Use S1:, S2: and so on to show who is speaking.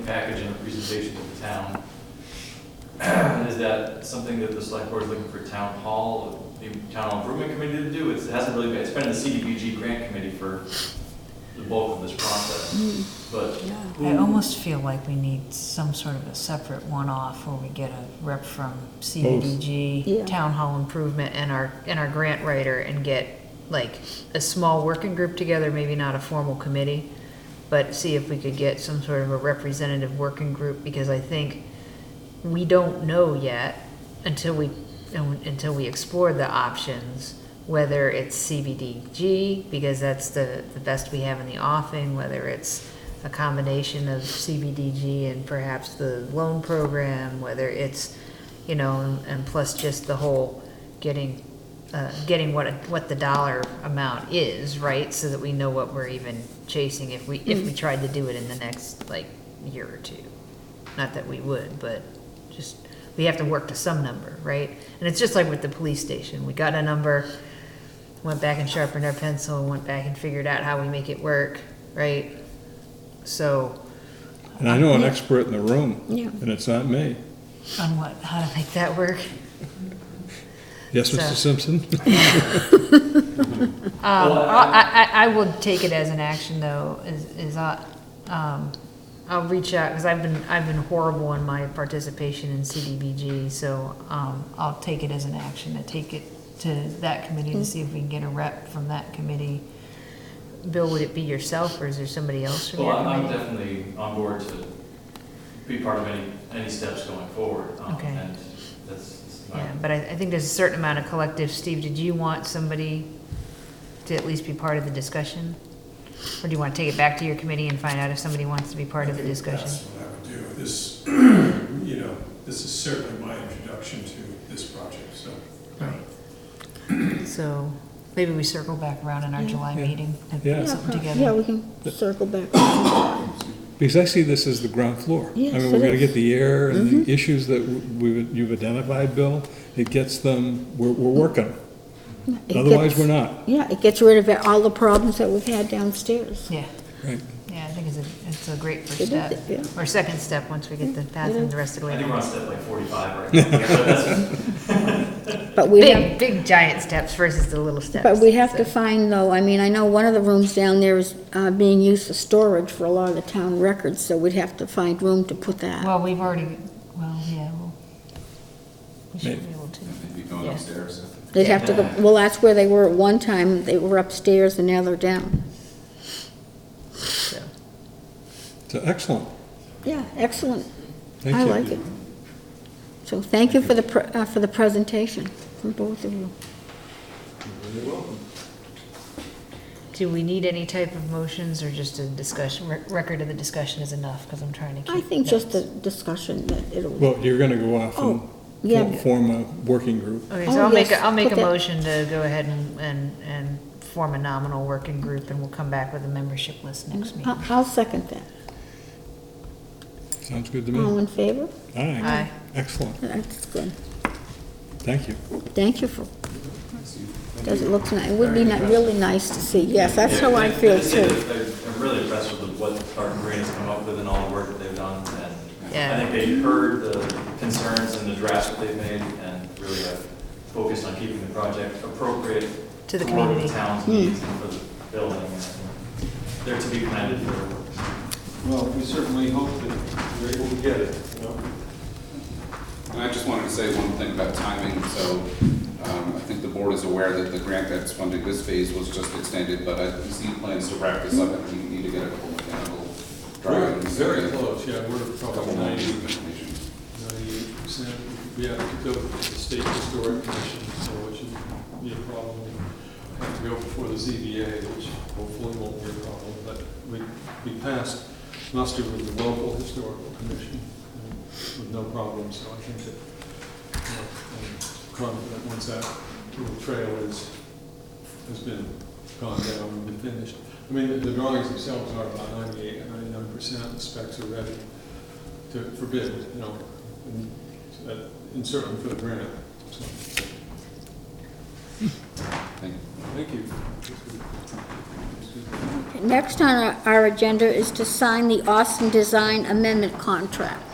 S1: package and a presentation to the town. Is that something that the select board is looking for town hall, the town hall improvement committee to do? It's- It hasn't really been, it's been in the CDBG grant committee for the bulk of this process, but
S2: I almost feel like we need some sort of a separate one-off where we get a rep from
S3: Yeah.
S2: CDBG, town hall improvement, and our, and our grant writer, and get like a small working group together, maybe not a formal committee, but see if we could get some sort of a representative working group, because I think we don't know yet until we, until we explore the options, whether it's CBDG, because that's the, the best we have in the offing, whether it's a combination of CBDG and perhaps the loan program, whether it's, you know, and- and plus just the whole getting, uh, getting what, what the dollar amount is, right? So that we know what we're even chasing if we, if we tried to do it in the next, like, year or two. Not that we would, but just, we have to work to some number, right? And it's just like with the police station, we got a number, went back and sharpened our pencil, went back and figured out how we make it work, right? So.
S4: And I know an expert in the room,
S3: Yeah.
S4: and it's not me.
S2: On what, how to make that work?
S4: Yes,
S2: So-
S4: Mr. Simpson?
S2: Um,
S1: Well,
S2: I, I, I will take it as an action though, is, is I, um, I'll reach out, cause I've been, I've been horrible in my participation in CDBG, so, um, I'll take it as an action, to take it to that committee to see if we can get a rep from that committee. Bill, would it be yourself or is there somebody else from
S1: Well,
S2: your
S1: I'm, I'm
S2: committee?
S1: definitely on board to be part of any, any steps going forward. um,
S2: Okay.
S1: And that's, that's my-
S2: Yeah, but I, I think there's a certain amount of collective, Steve, did you want somebody to at least be part of the discussion? Or do you wanna take it back to your committee and find out if somebody wants to be part of the
S5: I think
S2: discussion?
S5: That's what I would do. This, you know, this is certainly my introduction to this project, so.
S2: So maybe we circle back around in our July meeting and
S4: Yeah.
S2: put something
S3: Yeah, Yeah,
S2: together.
S3: we can circle back.
S4: Because I see this as the ground floor.
S3: Yes,
S4: I mean,
S3: it
S4: we're gonna
S3: is. Mm-hmm.
S4: get the air and the issues that we, you've identified, Bill. It gets them, we're, we're working.
S3: It
S4: Otherwise,
S3: gets-
S4: we're not.
S3: Yeah, it gets rid of it- all the problems that we've had downstairs.
S2: Yeah,
S4: Right.
S2: yeah, I think it's a, it's a great
S3: It
S2: first
S3: is,
S2: step,
S3: yeah.
S2: or second step, once we get the bathroom the rest of the
S1: I
S2: way.
S1: think we're on step like forty-five right now. so that's-
S3: But we have,
S2: Big, big giant steps versus the little steps.
S3: but we have to
S2: so.
S3: find though, I mean, I know one of the rooms down there is, uh, being used for storage for a lot of the town records, so we'd have to find room to put that.
S2: Well, we've already, well, yeah, well, we should
S4: Maybe.
S2: be able to.
S6: Maybe going
S2: Yeah.
S6: upstairs.
S3: They'd have to go, well, that's where they were at one time, they were upstairs and now they're down.
S2: So,
S4: So excellent.
S3: Yeah, excellent.
S4: Thank
S3: I
S4: you.
S3: like it. So thank you for the, pre- uh, for the presentation from both of you.
S2: Do we need any type of motions or just a discussion, rec- record of the discussion is enough, because I'm trying to keep.
S3: I think just the
S2: notes.
S3: discussion that it'll,
S4: Well, you're gonna go off
S3: Oh,
S4: and
S3: yeah.
S4: fo- form a working group.
S2: Okay,
S3: Oh,
S2: so I'll make,
S3: yes,
S2: a will make
S3: put
S2: a
S3: that-
S2: motion to go ahead and, and, and form a nominal working group, and we'll come back with a membership list next meeting.
S3: I- I'll second that.
S4: Sounds good to
S3: All
S4: me.
S3: in favor?
S2: Aye.
S4: Excellent.
S3: That's good.
S4: Thank you.
S3: Thank you for, does it look nice? It would be ni- really nice to see, yes, that's how I
S1: Yeah,
S3: feel
S1: just say
S3: too.
S1: that I- I'm really impressed with what Park and Green has come up with and all the work that they've done. And
S2: Yeah.
S1: I think they heard the concerns and the drafts that they've made and really have focused on keeping the project appropriate.
S2: To the
S1: for what
S2: community.
S1: town's
S3: Hmm.
S1: needs and for the building. and They're to be commended for
S7: Well, we certainly hope that we're able to get it, you know?
S6: And I just wanted to say one thing about timing, so um, I think the board is aware that the grant that's funding this phase was just extended, but I see plans to wrap this up, and we need to get a couple mechanical
S7: We're
S6: drawings.
S7: very
S6: and a
S7: close, yeah, we're
S6: Couple
S7: probably
S6: more
S7: ninety,
S6: information.
S7: ninety-eight percent. We have to go to the state historic commission, so it shouldn't be a problem. We Have to go before the ZBA, which hopefully won't be a problem, but we, we passed muster with the local historical commission um, with no problem, so I think that, you know, I'm confident once that little trail is, has been gone down and been finished. I mean, the- the drawings themselves are about 98, 99 percent, the specs are ready to forbid, you know, and, uh, and certainly for the grant. so.
S6: Thank you.
S7: Thank you. That's good. That's good.
S3: Next on our- our agenda is to sign the Austin Design Amendment Contract.